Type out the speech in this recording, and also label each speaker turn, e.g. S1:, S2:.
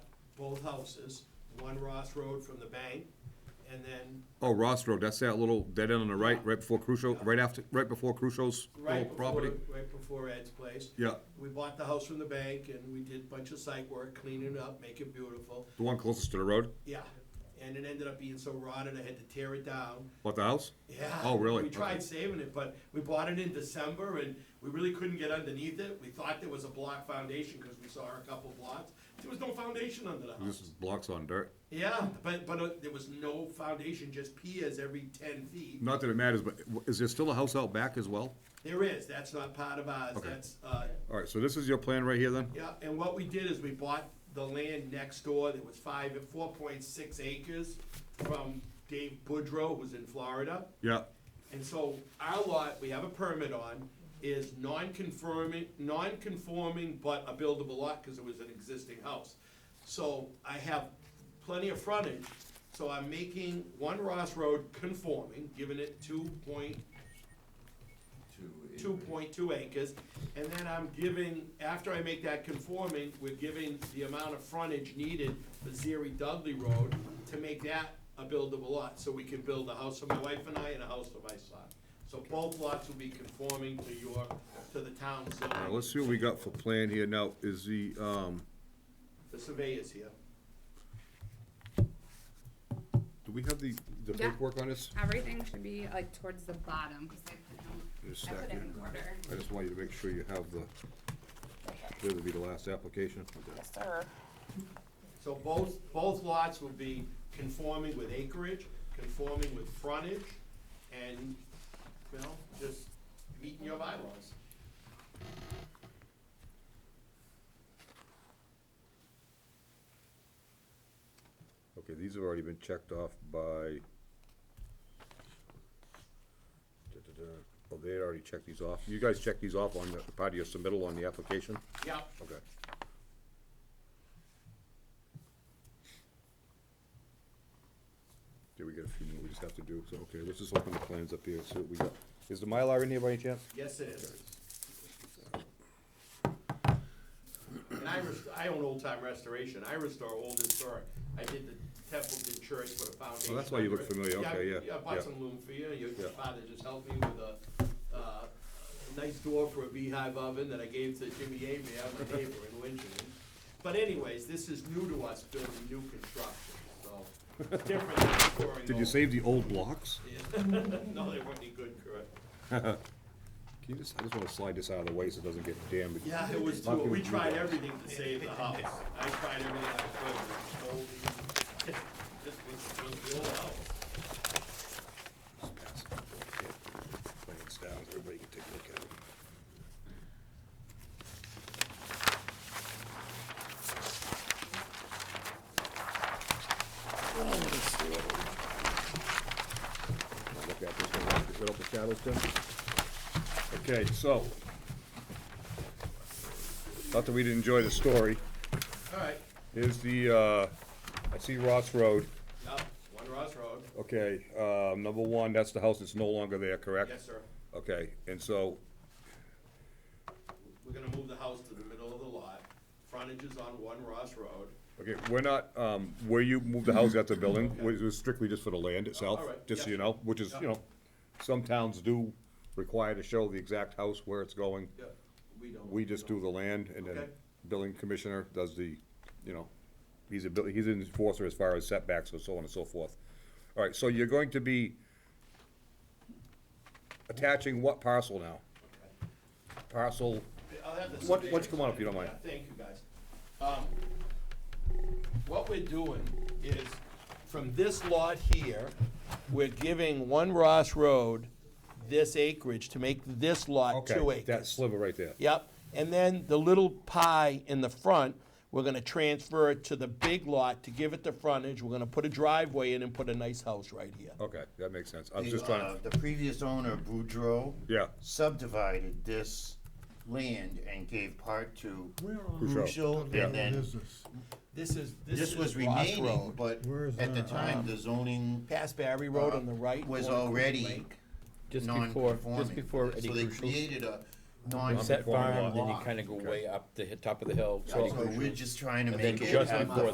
S1: both houses, one Ross Road from the bank, and then
S2: Oh, Ross Road, that's that little dead end on the right, right before Crucial,
S1: Yeah.
S2: right after, right before Crucial's
S1: right
S2: little
S1: before,
S2: property?
S1: right before Ed's place.
S2: Yeah,
S1: We bought the house from the bank and we did a bunch of site work, clean it up, make it beautiful,
S2: the one closest to the road,
S1: yeah. And it ended up being so rotted, I had to tear it down.
S2: bought the house?
S1: Yeah.
S2: Oh, really?
S1: We
S2: Okay.
S1: tried saving it, but we bought it in December and we really couldn't get underneath it. We thought there was a block foundation because we saw a couple blocks. There was no foundation under the
S2: This
S1: house.
S2: is blocks on dirt.
S1: Yeah, but, but uh, there was no foundation, just piers every ten feet.
S2: Not that it matters, but is there still a house out back as well?
S1: There is, that's not part of ours,
S2: Okay.
S1: that's, uh,
S2: All right, so this is your plan right here then?
S1: yeah, and what we did is we bought the land next door, there was five, four point six acres from Dave Boudreau, who's in Florida.
S2: Yeah,
S1: And so our lot, we have a permit on, is non-conforming, non-conforming but a buildable lot because it was an existing house. So I have plenty of frontage, so I'm making one Ross Road conforming, giving it two point two point two acres, and then I'm giving, after I make that conforming, we're giving the amount of frontage needed for Zeri Dudley Road to make that a buildable lot, so we can build a house for my wife and I and a house for my son. So both lots will be conforming to your, to the town
S2: all right,
S1: zoning,
S2: let's see what we got for plan here now, is the, um,
S1: the surveyors here.
S2: do we have the, the
S3: Yeah.
S2: paperwork on this?
S3: Everything should be like towards the bottom, cause I put them,
S2: Just a
S3: I put it
S2: second.
S3: in order.
S2: I just want you to make sure you have the, this will be the last application.
S3: Yes, sir.
S1: So both, both lots will be conforming with acreage, conforming with frontage, and, you know, just meeting your bylaws.
S2: Okay, these have already been checked off by. Da-da-da. Oh, they already checked these off. You guys checked these off on the part of your submittal on the application?
S1: Yep,
S2: Okay. Did we get a few more we just have to do? So, okay, let's just open the plans up here, see what we got. Is the Mylar in here by any chance?
S1: yes it is. And I, rest- I own old time restoration, I restore old historic, I did the Templeton Church, put a foundation.
S2: Oh, that's why you look
S1: under it.
S2: familiar.
S1: I-
S2: Okay, yeah,
S1: I bought
S2: yeah.
S1: some loom for you, your
S2: Yeah.
S1: father just helped me with a, uh, a nice door for a beehive oven that I gave to Jimmy Abear, my neighbor in Winchton. But anyways, this is new to us building new construction, so, it's different than restoring
S2: Did you
S1: old.
S2: save the old blocks?
S1: No, they weren't any good, correct.
S2: Can you just, I just wanna slide this out of the way so it doesn't get damaged.
S1: Yeah, it was too,
S2: Lucky
S1: we
S2: you
S1: tried
S2: guys.
S1: everything to save the house. I tried everything I could, we sold these. This was, was the old house.
S2: Just pass it. Plans down, everybody can take a look at it. Wanna Look at this one, get rid of the shadows, Tim? Okay, so. Not that we didn't enjoy the story,
S1: All right,
S2: here's the, uh, I see Ross Road,
S1: yep, One Ross Road,
S2: okay, uh, number one, that's the house that's no longer there, correct?
S1: yes, sir.
S2: Okay, and so,
S1: We're gonna move the house to the middle of the lot. Frontage is on One Ross Road.
S2: okay, we're not, um, where you moved the house out the building, was was strictly just for the land itself,
S1: All right,
S2: just so
S1: yeah.
S2: you know, which is, you know, some towns do require to show the exact house where it's going.
S1: Yep, we don't.
S2: We just do the land and then
S1: Okay.
S2: building commissioner does the, you know, he's a, buil- he's an enforcer as far as setbacks and so on and so forth. All right, so you're going to be attaching what parcel now? Parcel,
S1: I'll have the
S2: What-
S1: surveyor-
S2: what's come on up, you don't mind?
S1: Yeah, Thank you, guys. Um, What we're doing is, from this lot here, we're giving One Ross Road this acreage to make this lot two
S2: okay,
S1: acres.
S2: that sliver right there.
S1: Yep, and then the little pie in the front, we're gonna transfer it to the big lot to give it the frontage. We're gonna put a driveway in and put a nice house right here.
S2: Okay, that makes sense. I was
S4: The,
S2: just trying
S4: uh,
S2: to,
S4: The previous owner, Boudreau.
S2: Yeah.
S4: Subdivided this land and gave part to
S2: Crucial.
S4: Crucial,
S2: Yeah.
S4: and then
S1: This is,
S4: this was
S1: Ross
S4: remaining,
S1: Road.
S4: but
S5: Where is
S4: at the
S5: that?
S4: time, the zoning uh,
S1: Past Barry Road on Um, the right.
S4: was
S1: going to
S4: already
S1: Lake.
S6: Just before, just
S4: non-conforming.
S6: before Eddie
S4: So they
S6: Crucial's
S4: created a
S6: set
S4: non-conforming
S6: farm, then you
S4: lot.
S6: kinda go way up the hi- top of the hill. to
S4: So
S6: Eddie Crucial.
S4: we're just trying to
S6: And then
S4: make it
S6: just
S4: have
S6: before